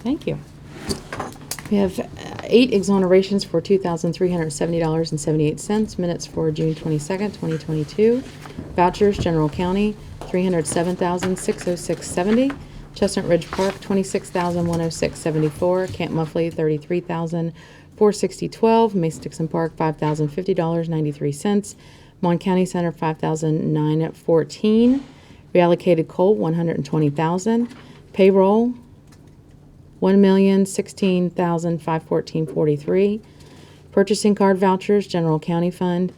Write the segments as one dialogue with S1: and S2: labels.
S1: Thank you. We have uh, eight exonerations for $2,370.78, minutes for June 22nd, 2022, vouchers, General County, $307,606.70, Chestnut Ridge Park, $26,106.74, Camp Muffley, $33,460.12, Mason Dixon Park, $5,050.93, Mon County Center, $5,914, reallocated coal, $120,000, payroll, one million sixteen thousand five fourteen forty-three. Purchasing card vouchers, general county fund,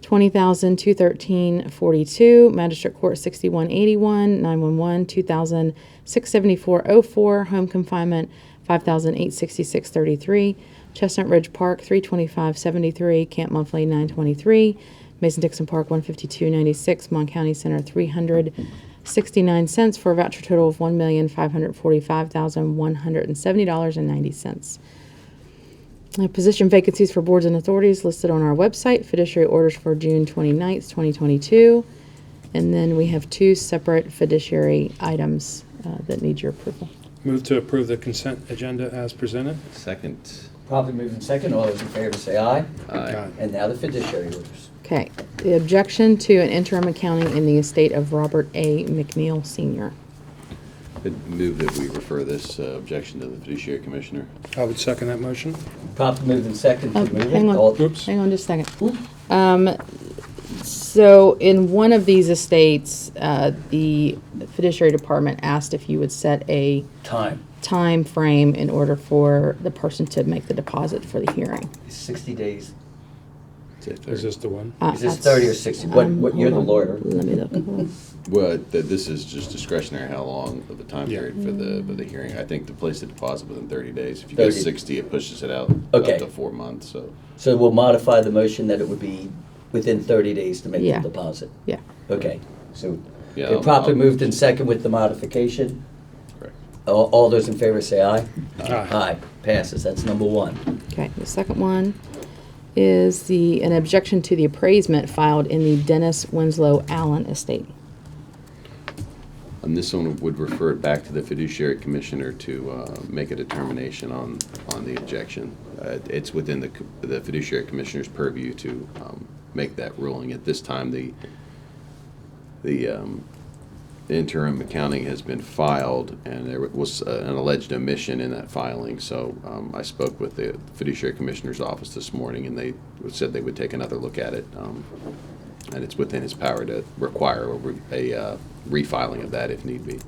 S1: twenty thousand two thirteen forty-two. Magistrate court sixty-one eighty-one, nine-one-one, two thousand six seventy-four oh four. Home confinement, five thousand eight sixty-six thirty-three. Chestnut Ridge Park, three twenty-five seventy-three. Camp Muffley, nine twenty-three. Mason Dixon Park, one fifty-two ninety-six. Mon County Center, three hundred 69 cents for a voucher total of $1,545,170.90. Uh, Position vacancies for boards and authorities listed on our website, fiduciary orders for June 29th, 2022. And then we have two separate fiduciary items uh, that need your approval.
S2: Move to approve the consent agenda as presented.
S3: Second.
S4: Probably moving second, all those in favor say aye.
S3: Aye.
S4: And now the fiduciary orders.
S1: Okay, the objection to an interim accounting in the estate of Robert A. McNeil Sr.
S3: I'd Move that we refer this uh, objection to the fiduciary commissioner.
S2: I would second that motion.
S4: Probably moving second to
S1: Oh,
S4: move
S1: hang
S4: it.
S1: on.
S4: All-
S2: Oops.
S1: Hang on just a second.
S4: Ooh,
S1: Um, so in one of these estates, uh, the fiduciary department asked if you would set a
S4: Time,
S1: time frame in order for the person to make the deposit for the hearing.
S4: sixty days.
S3: Say third.
S2: Is this the one?
S1: Uh,
S4: Is this
S1: that's-
S4: thirty or sixty? What,
S1: um,
S4: what, you're the
S1: hold on.
S4: lawyer.
S1: Let me look. Hold on.
S3: Well, th- this is just discretionary, how long of a time
S2: Yeah.
S3: period for the, for the hearing. I think to place the deposit within 30 days. If you go
S4: 30.
S3: 60, it pushes it out up
S4: Okay.
S3: to four months, so.
S4: So we'll modify the motion that it would be within thirty days to make
S1: Yeah.
S4: the deposit.
S1: Yeah,
S4: Okay, so
S3: Yeah,
S4: it
S3: I'll-
S4: properly
S3: I'll-
S4: moved in second with the modification.
S3: Correct.
S4: All, all those in favor say aye.
S2: Aye.
S4: Aye, passes, that's number one.
S1: okay. The second one is the, an objection to the appraisement filed in the Dennis Winslow Allen estate.
S3: And this one would refer it back to the fiduciary commissioner to uh, make a determination on, on the objection. Uh, It's within the co- the fiduciary commissioner's purview to um, make that ruling. At this time, the, the um, the interim accounting has been filed, and there was uh, an alleged omission in that filing. So um, I spoke with the fiduciary commissioner's office this morning, and they said they would take another look at it. um, And it's within his power to require a re- a uh, refiling of that if need be.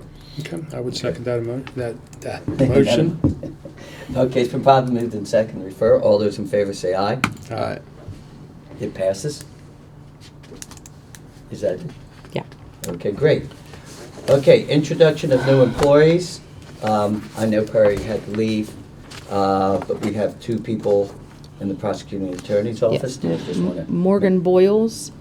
S2: Okay, I would second that emo, that, that motion.
S4: Okay, it's been properly moved in second, to refer, all those in favor say aye.
S2: Aye.
S4: It passes? Is that,
S1: Yeah.
S4: okay, great. Okay, introduction of new employees. Um, I know Perry had to leave, uh, but we have two people in the prosecuting attorney's
S1: Yeah.
S4: office. Do you just wanna-
S1: Morgan Boyles,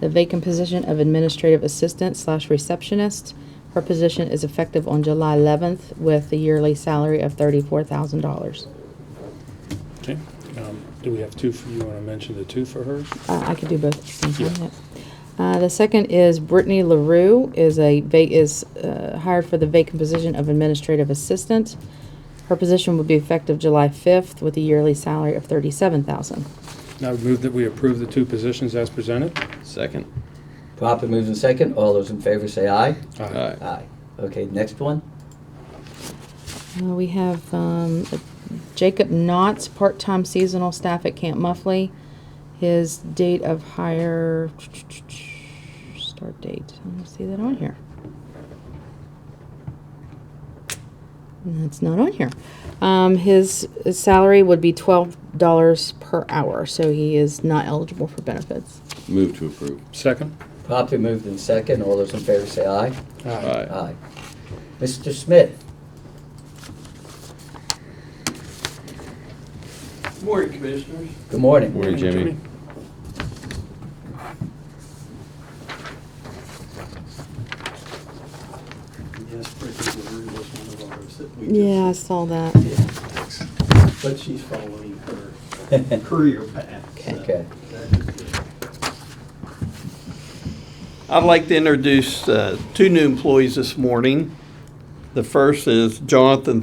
S1: the vacant position of administrative assistant slash receptionist. Her position is effective on July 11th with a yearly salary of $34,000.
S2: Okay. Um, Do we have two, for you want to mention the two for her?
S1: Uh, I could do both at the same time. yeah. Uh, the second is Brittany LaRue is a va- is uh, hired for the vacant position of administrative assistant. Her position would be effective July 5th with a yearly salary of 37,000.
S2: I would move that we approve the two positions as presented.
S3: Second.
S4: Properly moved in second, all those in favor say aye.
S3: Aye.
S4: Aye. Okay, next one?
S1: Uh, we have um, Jacob Knotts, part-time seasonal staff at Camp Muffley. His date of hire, start date, I don't see that on here. That's not on here. Um, his his salary would be twelve dollars per hour, so he is not eligible for benefits.
S3: Move to approve.
S2: Second?
S4: Properly moved in second, all those in favor say aye.
S3: Aye.
S4: Aye. Mr. Smith?
S5: Morning, Commissioners.
S4: Good morning.
S3: Morning, Jimmy.
S5: Yes, Bridget Lawrie was one of ours that we just.
S1: Yeah, I saw that.
S5: Yeah, thanks. But she's following her career path. so
S4: Okay.
S5: that is good.
S6: I'd like to introduce uh, two new employees this morning. The first is Jonathan